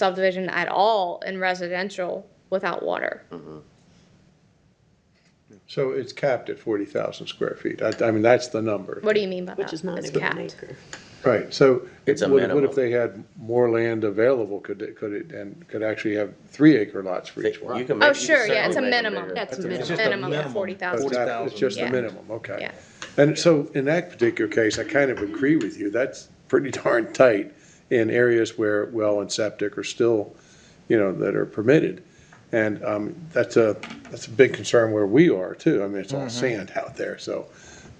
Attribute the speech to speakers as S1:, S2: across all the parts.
S1: subdivision at all in residential without water.
S2: So it's capped at forty thousand square feet. I, I mean, that's the number.
S1: What do you mean by that?
S3: Which is not
S1: It's
S3: even an
S1: capped.
S3: acre.
S2: Right, so. it-
S4: It's a
S2: what- What
S4: minimum.
S2: if they had more land available, could it, could it, and could actually have three acre lots for each
S4: You
S2: one?
S4: can make.
S1: Oh,
S4: you can
S1: sure, yeah, it's a
S4: certainly make it
S1: minimum.
S4: bigger.
S1: That's a
S5: It's
S1: minimum,
S5: just a
S1: minimum of
S5: minimum.
S1: forty
S2: But
S1: thousand.
S2: it's not- It's
S5: 40,000.
S2: just the
S1: Yeah.
S2: minimum, okay.
S1: Yeah.
S2: And so in that particular case, I kind of agree with you. That's pretty darn tight in areas where well and septic are still, you know, that are permitted. And um, that's a, that's a big concern where we are too. I mean,
S1: Mm-hmm.
S2: it's all sand out there, so,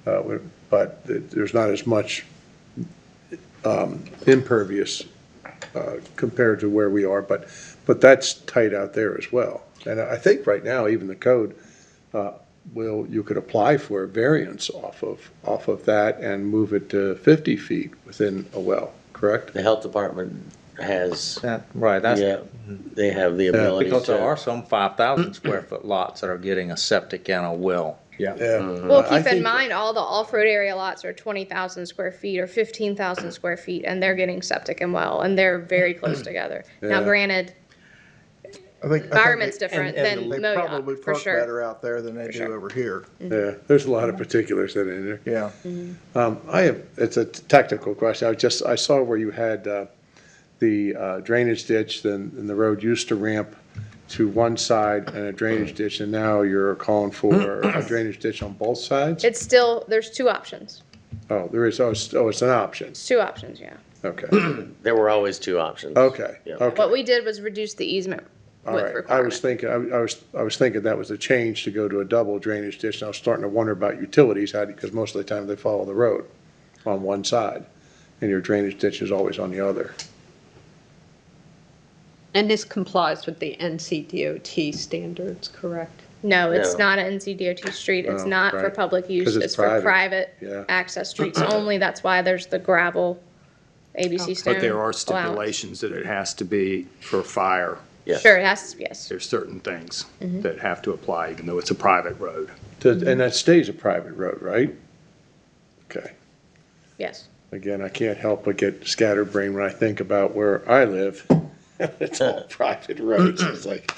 S2: uh, we- but th- there's not as much um, impervious uh, compared to where we are, but, but that's tight out there as well. And I think right now, even the code well, you could apply for a variance off of, off of that and move it to 50 feet within a well, correct?
S4: The health department has,
S5: That, right, that's,
S4: yeah, they have the ability
S5: because there are
S4: to.
S5: some five thousand square foot lots that are getting a septic and a well. Yeah.
S1: Well, keep in mind, all the off-road area lots are twenty thousand square feet or fifteen thousand square feet, and they're getting septic and well, and they're very close together. Now
S2: Yeah.
S1: granted,
S6: I think- I think
S1: Environment's
S6: they-
S1: different
S6: and- and
S1: than Modoc,
S6: They probably
S1: for
S6: park
S1: sure.
S6: better out there than they
S1: For
S6: do
S1: sure.
S6: over here.
S2: Yeah, there's a lot of particulars that are in there.
S6: Yeah.
S2: Um, I have, it's a technical question. I just, I saw where you had uh, the uh, drainage ditch, then, and the road used to ramp to one side and a drainage ditch, and now you're calling for a drainage ditch on both sides?
S1: it's still, there's two options.
S2: Oh, there is, oh, it's, oh, it's an option.
S1: It's two options, yeah.
S2: Okay,
S4: There were always two options.
S2: okay,
S4: Yeah.
S2: okay.
S1: What we did was reduce the easement
S2: All
S1: width
S2: right, I was
S1: requirement.
S2: thinking, I I was, I was thinking that was a change to go to a double drainage ditch, and I was starting to wonder about utilities, how, because most of the time they follow the road on one side, and your drainage ditch is always on the other.
S3: And this complies with the NCDOT standards, correct?
S1: No, it's
S4: No.
S1: not an NCDOT street. It's
S2: Oh,
S1: not for
S2: right.
S1: public use.
S2: 'Cause it's
S1: It's for
S2: private.
S1: private
S2: Yeah.
S1: access streets only. That's why there's the gravel ABC stone.
S7: Oh. But there are
S1: allowance.
S7: stipulations that it has to be for fire.
S4: Yes.
S1: Sure, it has, yes.
S7: There's certain things
S1: Mm-hmm.
S7: that have to apply, even though it's a private road.
S2: To- And that stays a private road, right? Okay,
S1: Yes.
S2: again, I can't help but get scatterbrained when I think about where I live. It's all private roads, it's like,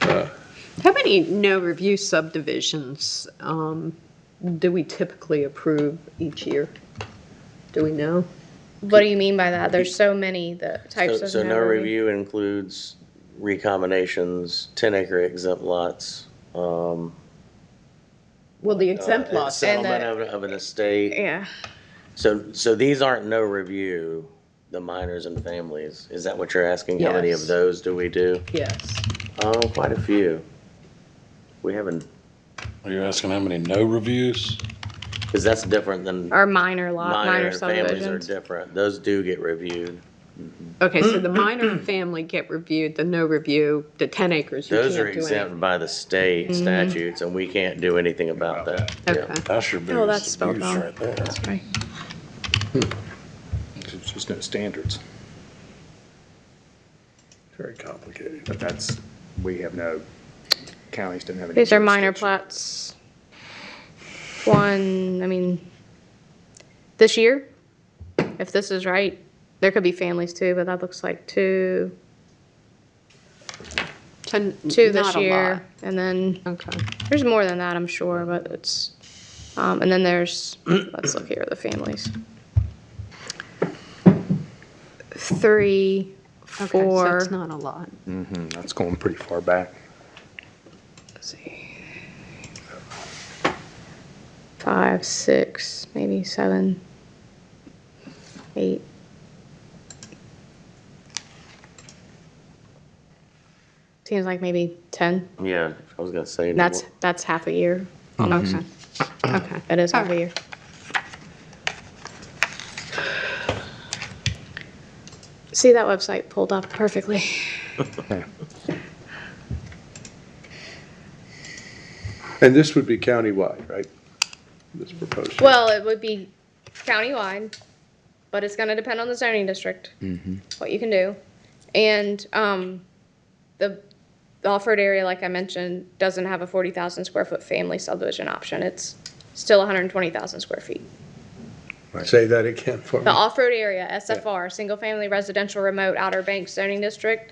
S3: How many no review subdivisions um, do we typically approve each year? Do we know?
S1: What do you mean by that? There's so many the types
S4: So
S1: of
S4: so
S1: no review.
S4: includes recombinations, ten acre exempt lots, um.
S3: Well, the
S4: uh,
S3: exempt lots,
S1: And uh, the-
S4: Settlement of, of an estate.
S1: Yeah,
S4: So, so these aren't no review, the minors and families. Is that what you're asking? How many of
S3: Yes.
S4: those do we do?
S3: yes.
S4: Oh, quite a few. We haven't,
S8: Are you asking how many no reviews?
S4: because that's different than
S1: or minor lot,
S4: minor
S1: minor
S4: and families are
S1: subdivisions.
S4: different. Those do get reviewed.
S3: Okay, so the minor and family get reviewed, the no review, the 10 acres, you can't
S4: Those
S3: do
S4: are
S3: anything.
S4: exempt by the state statutes, and we can't do anything about that.
S3: Okay.
S8: That's your
S1: Oh, that's
S8: biggest
S1: spelled
S8: abuse
S1: wrong.
S8: right there.
S1: That's right.
S7: There's just no standards.
S2: very complicated.
S7: But that's, we have no, counties don't have any.
S1: These are minor
S7: jurisdiction.
S1: plats. One, I mean, this year, if this is right, there could be families too, but that looks like two,
S3: Ten-
S1: two this
S3: not a
S1: year. And then
S3: lot. Okay.
S1: there's more than that, I'm sure, but it's, um, and then there's, let's look here, the families. Three,
S3: Okay, so
S1: four,
S3: it's not a lot.
S7: That's going pretty far back.
S1: let's see. Five, six, maybe seven, eight. Seems like maybe 10.
S4: Yeah, I was gonna say.
S1: That's, that's half a year. Okay.
S4: Mm-hmm.
S3: Okay.
S1: That is half a year. See that website pulled up perfectly.
S2: And this would be countywide, right? This proposed.
S1: Well, it would be countywide, but it's gonna depend on the zoning district, what you can do. And, um, the, the off-road area, like I mentioned, doesn't have a forty thousand square foot family subdivision option. It's still hundred and twenty thousand square feet.
S2: Say that again for me.
S1: The off-road area, SFR, single-family residential remote Outer Banks zoning district,